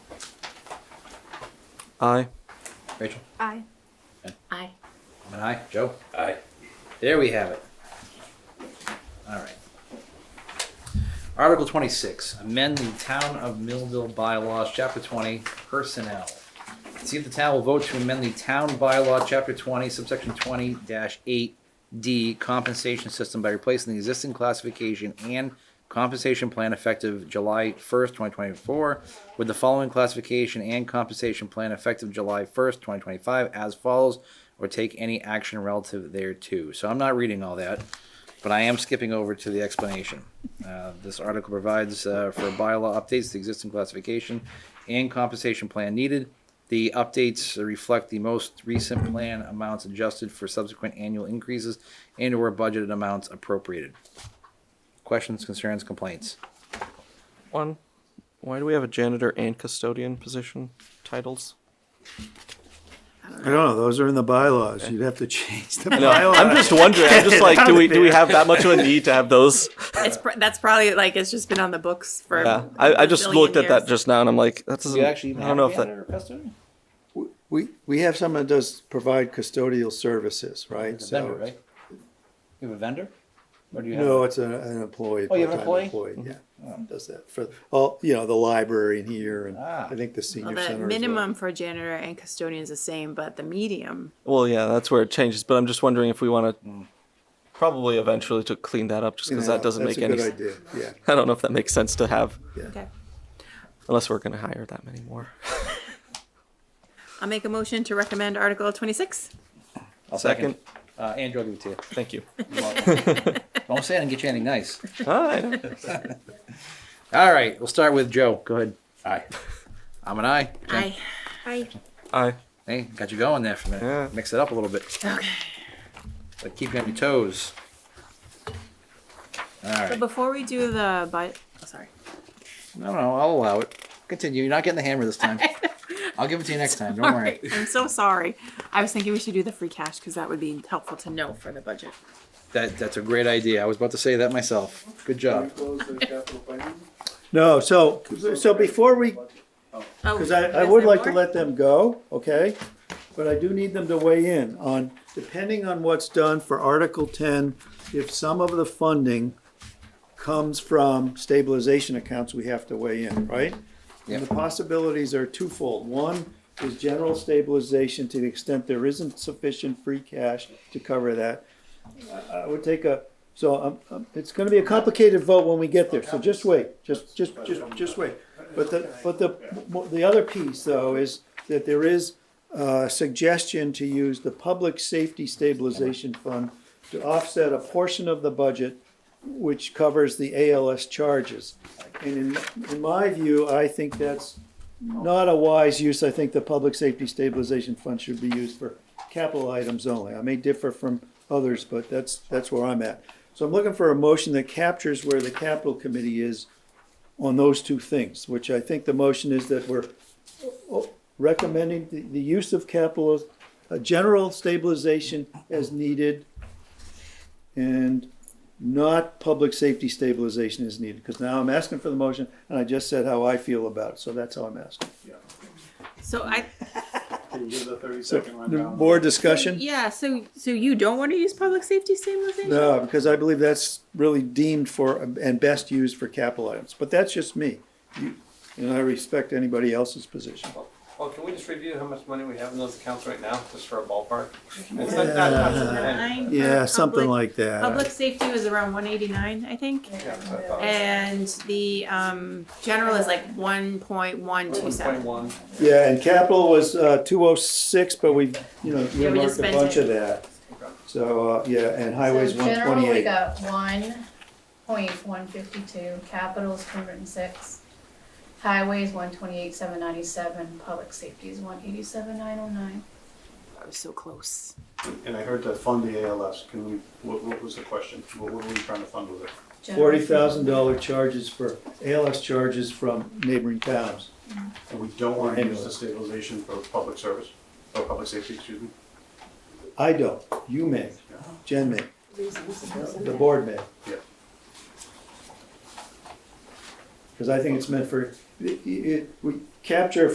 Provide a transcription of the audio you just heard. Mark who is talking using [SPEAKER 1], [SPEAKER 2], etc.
[SPEAKER 1] Aye.
[SPEAKER 2] Rachel?
[SPEAKER 3] Aye.
[SPEAKER 4] Aye.
[SPEAKER 2] I'm an aye. Joe?
[SPEAKER 5] Aye.
[SPEAKER 2] There we have it. All right. Article 26, amend the Town of Millville bylaws, Chapter 20, personnel. See if the town will vote to amend the town bylaw, Chapter 20, subsection 20-8D, compensation system by replacing the existing classification and compensation plan effective July 1st, 2024, with the following classification and compensation plan effective July 1st, 2025, as follows, or take any action relative thereto. So I'm not reading all that, but I am skipping over to the explanation. Uh, This article provides uh, for bylaw updates, to the existing classification and compensation plan needed. The updates reflect the most recent plan amounts adjusted for subsequent annual increases and/or budgeted amounts appropriated. Questions, concerns, complaints?
[SPEAKER 1] One. Why do we have a janitor and custodian position titles?
[SPEAKER 6] I don't know. Those are in the bylaws. You'd have to change the
[SPEAKER 1] No,
[SPEAKER 6] bylaws.
[SPEAKER 1] I'm just wondering. I'm just like, do we do we have that much of a need to have those?
[SPEAKER 4] It's pr- that's probably like it's just been on the books for.
[SPEAKER 1] Yeah, I, I just
[SPEAKER 4] a billion
[SPEAKER 1] looked at that
[SPEAKER 4] years.
[SPEAKER 1] just now, and I'm like, that doesn't.
[SPEAKER 2] Do you actually even
[SPEAKER 1] I don't know
[SPEAKER 2] have a
[SPEAKER 1] if that.
[SPEAKER 2] janitor or custodian?
[SPEAKER 6] We, we have someone that does provide custodial services, right?
[SPEAKER 2] It's a
[SPEAKER 6] So
[SPEAKER 2] vendor, right? You have a vendor? Or do you have?
[SPEAKER 6] No,
[SPEAKER 2] a-
[SPEAKER 6] it's a, an employee.
[SPEAKER 2] Oh, you have an
[SPEAKER 6] part-time
[SPEAKER 2] employee? Mm-hmm.
[SPEAKER 6] employee, Yeah, Um, does that for, all, you know, the library in here and
[SPEAKER 2] Ah.
[SPEAKER 6] I think the
[SPEAKER 4] Well,
[SPEAKER 6] senior
[SPEAKER 4] the
[SPEAKER 6] center. as well.
[SPEAKER 4] minimum for janitor and custodian is the same, but the medium.
[SPEAKER 1] Well, yeah, that's where it changes. But I'm just wondering if we want to, probably eventually to clean that up, just because
[SPEAKER 6] Yeah,
[SPEAKER 1] that doesn't
[SPEAKER 6] that's
[SPEAKER 1] make
[SPEAKER 6] a
[SPEAKER 1] any.
[SPEAKER 6] good
[SPEAKER 1] s-
[SPEAKER 6] idea. Yeah,
[SPEAKER 1] I don't know if that makes sense to have,
[SPEAKER 4] Okay.
[SPEAKER 1] unless we're going to hire that many more.
[SPEAKER 4] I'll make a motion to recommend Article 26.
[SPEAKER 2] I'll
[SPEAKER 1] Second,
[SPEAKER 2] Uh, Andrew, I'll give it to you.
[SPEAKER 1] thank you.
[SPEAKER 2] You're welcome. Don't say I didn't get you anything nice.
[SPEAKER 1] Hi.
[SPEAKER 2] All right, we'll start with Joe. Go ahead.
[SPEAKER 5] Aye.
[SPEAKER 2] I'm an aye.
[SPEAKER 4] Aye.
[SPEAKER 3] Aye.
[SPEAKER 1] Aye.
[SPEAKER 2] Hey, got you going there for a minute.
[SPEAKER 1] Yeah.
[SPEAKER 2] Mix it up a little bit.
[SPEAKER 4] Okay.
[SPEAKER 2] But keep you on your toes. All
[SPEAKER 4] So
[SPEAKER 2] right.
[SPEAKER 4] before we do the by, oh, sorry.
[SPEAKER 2] No, no, I'll allow it. Continue. You're not getting the hammer this time. I'll give it to you next time. Don't worry.
[SPEAKER 4] I'm so sorry. I was thinking we should do the free cash because that would be helpful to know for the budget.
[SPEAKER 2] That that's a great idea. I was about to say that myself. Good job.
[SPEAKER 6] no, so, so before we,
[SPEAKER 4] Oh,
[SPEAKER 6] Because I, I
[SPEAKER 4] is
[SPEAKER 6] would
[SPEAKER 4] there
[SPEAKER 6] like to
[SPEAKER 4] more?
[SPEAKER 6] let them go, okay? But I do need them to weigh in on, depending on what's done for Article ten, if some of the funding comes from stabilization accounts, we have to weigh in, right? And
[SPEAKER 2] Yep.
[SPEAKER 6] the possibilities are twofold. One is general stabilization to the extent there isn't sufficient free cash to cover that. I, I would take a, so um, um, it's gonna be a complicated vote when we get there, so just wait, just, just, just, just wait. But the, but the, mo- the other piece though is that there is a suggestion to use the Public Safety Stabilization Fund to offset a portion of the budget which covers the ALS charges. And in, in my view, I think that's not a wise use. I think the Public Safety Stabilization Fund should be used for capital items only. I may differ from others, but that's, that's where I'm at. So I'm looking for a motion that captures where the capital committee is on those two things, which I think the motion is that we're oh, recommending the, the use of capital, a general stabilization as needed, and not public safety stabilization is needed, because now I'm asking for the motion, and I just said how I feel about it, so that's how I'm asking.
[SPEAKER 4] So I
[SPEAKER 6] So, more discussion?
[SPEAKER 4] yeah. So so you don't want to use public safety stabilization?
[SPEAKER 6] No, uh, because I believe that's really deemed for, and best used for capital items, but that's just me. You- And I respect anybody else's position.
[SPEAKER 7] Well, can we just review how much money we have in those accounts right now, just for a ballpark? It's like not much of an annual,
[SPEAKER 4] Nine for
[SPEAKER 6] Yeah, something
[SPEAKER 4] public-
[SPEAKER 6] like that.
[SPEAKER 4] Public safety was around one eighty-nine, I think,
[SPEAKER 7] yeah, so I thought it
[SPEAKER 4] and the, um, general is like one point one two
[SPEAKER 7] was
[SPEAKER 4] seven.
[SPEAKER 7] 1.1.
[SPEAKER 6] Yeah, and capital was, uh, two oh six, but we, you know,
[SPEAKER 4] we just
[SPEAKER 6] we marked a
[SPEAKER 4] spent
[SPEAKER 6] bunch
[SPEAKER 4] it.
[SPEAKER 6] of that. So, uh, yeah, and highways
[SPEAKER 8] So
[SPEAKER 6] one
[SPEAKER 8] General, we
[SPEAKER 6] twenty-eight.
[SPEAKER 8] got one point one fifty-two, capital's two hundred and six, highways one twenty-eight, seven ninety-seven, public safety is one eighty-seven, nine oh nine.
[SPEAKER 4] I was so close.
[SPEAKER 9] And I heard to fund the ALS, can we, what, what was the question? What, what were we trying to fund with it?
[SPEAKER 6] forty thousand dollar charges for, ALS charges from neighboring towns.
[SPEAKER 9] And we don't want to use the stabilization for public service, or public safety, excuse me?
[SPEAKER 6] I don't, you may, Jen may, the board may.
[SPEAKER 9] Yeah.
[SPEAKER 6] Because I think it's meant for, it, it, we capture